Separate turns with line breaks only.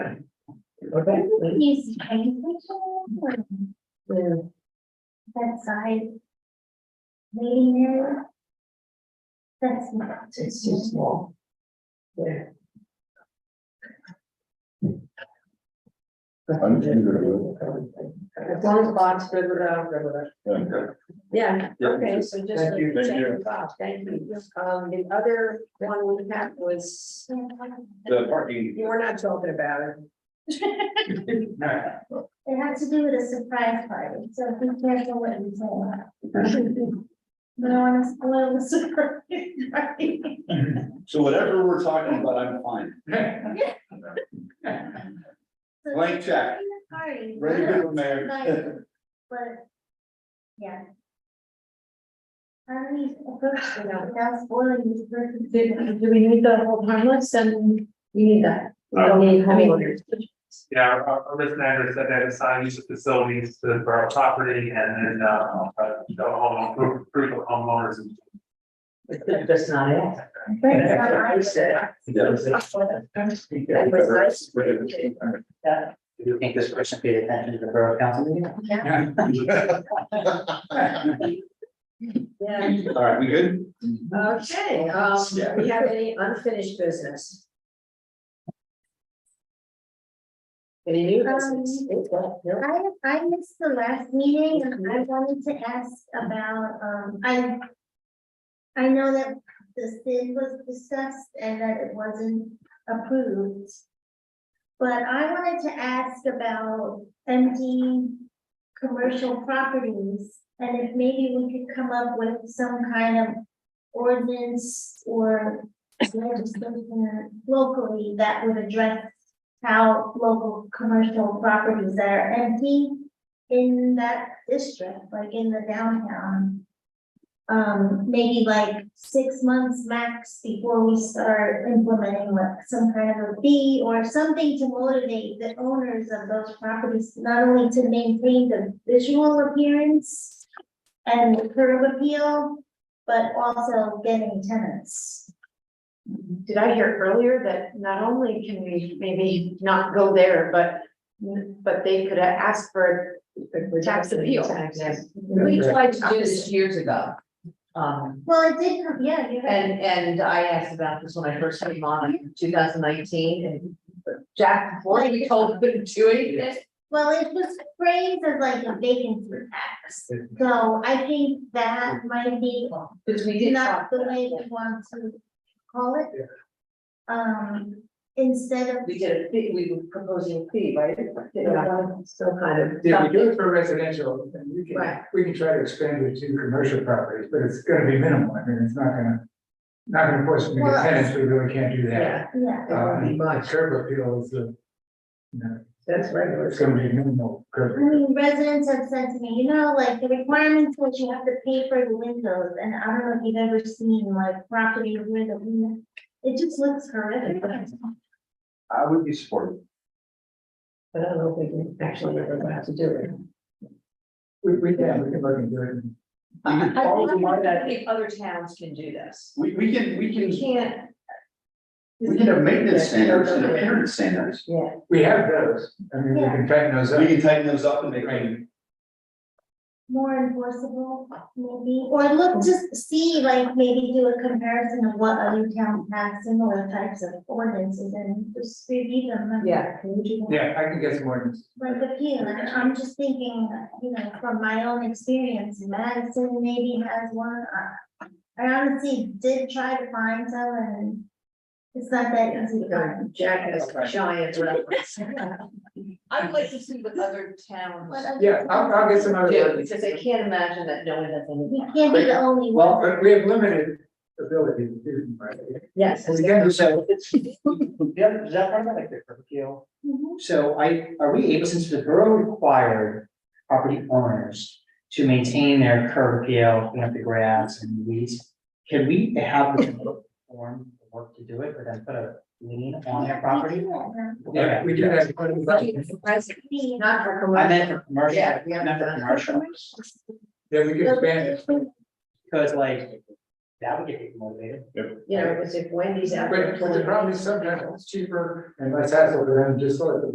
Okay.
He's paying for it,
Yeah.
that side. Waiting area. That's not.
It's too small. Yeah.
I'm just gonna go.
As long as Bob's good with it, I'm good with it.
Yeah,
Yeah.
okay, so just.
Thank you.
check
Thank you.
with Bob. Thank you. Um, the other one we had was,
The parking.
we're not talking about it.
It had to do with a surprise party, so be careful what you say. No, I'm a little surprise. party.
So whatever we're talking about, I'm fine.
So
Blank check.
Party.
Ready to go,
Right.
Mayor.
But, yeah. How do we approach it without spoiling this person's dinner?
do we need the whole harmless and we need that? We don't need homeowners.
Yeah, Rich Snyder said that assign use of facilities to the borough property and then, uh, uh, the home, group- group of homeowners. and-
That's not it.
But it's not like-
That was nice.
Yeah. Do you think this person paid attention to the borough council meeting?
Yeah.
Yeah,
All right, we good?
okay, um,
Yeah.
we have any unfinished business? Any new business? No?
I, I missed the last meeting and I wanted to ask about, um, I. I know that the SID was discussed and that it wasn't approved. But I wanted to ask about empty commercial properties. And if maybe we could come up with some kind of ordinance or legislation locally that would address how local commercial properties that are empty in that district, like in the downtown. Um, maybe like six months max before we start implementing like some kind of a fee or something to motivate the owners of those properties, not only to maintain the visual appearance and the curb appeal, but also getting tenants.
did I hear earlier that not only can we maybe not go there, but, but they could ask for tax appeal.
We tried to do this years ago. Um,
Well, it did come, yeah, you're right.
and, and I asked about this when I first came on in two thousand nineteen and Jack, before we told him to do anything.
Well, it was phrased as like a vacancy tax, so I think that might be
Because we did
not
talk.
the way we want to call it. Um, instead of,
We did a fee, we were proposing a fee, right?
Still kind of.
Yeah, we do it for residential, and we
Right.
can, we can try to expand it to commercial properties, but it's gonna be minimal, I mean, it's not gonna. Not gonna force them to
Well-
get tenants, we really can't do that.
Yeah,
yeah,
it won't be
Um,
much.
Curb appeal is, a- you know,
That's regular.
it's gonna be minimal
I
curb.
mean, residents have said to me, you know, like the requirements was you have to pay for the windows, and I don't know if you've ever seen like property where the window. It just looks horrific.
I would be supportive.
But I don't know if we can actually ever have to do it.
We, we can, we can look into it.
I think I think other towns can do this.
We, we can, we
You
can,
can't.
we can have maintenance standards and appearance standards.
Yeah.
We have those, I mean, we can tighten those
We
up.
can tighten those up and make them.
more enforceable, maybe, or look, just see, like, maybe do a comparison of what other towns have similar types of ordinances and just review them. and-
Yeah,
Yeah, I can get some more.
Like a few, and I'm just thinking, you know, from my own experience, Madison maybe has one, I- I honestly did try to find some and it's not that easy to find.
Jack has a giant reference.
I would like to see what other towns
What other-
Yeah, I'll, I'll get some
do,
other.
because I can't imagine that no one has any.
You can't be the only
Well, uh,
one,
but we have limited ability to do, them, right?
Yes.
We can do so.
Yeah, is that part of like the curfew?
Mhm.
So I, are we able, since the borough required property owners to maintain their curb appeal, clean up the grass and weeds? Can we have them perform the work to do it, or then put a lien on their property?
Yeah, we do have. quite a bit.
Be-
Not for
I
commercial.
meant for commercial,
Yeah, we haven't
not for
done it.
commercial,
Yeah, we can expand it.
because like, that would get people motivated.
You know, because if Wendy's out there.
But but the
pulling-
problem is sometimes it's cheaper and less hassle for them, just like the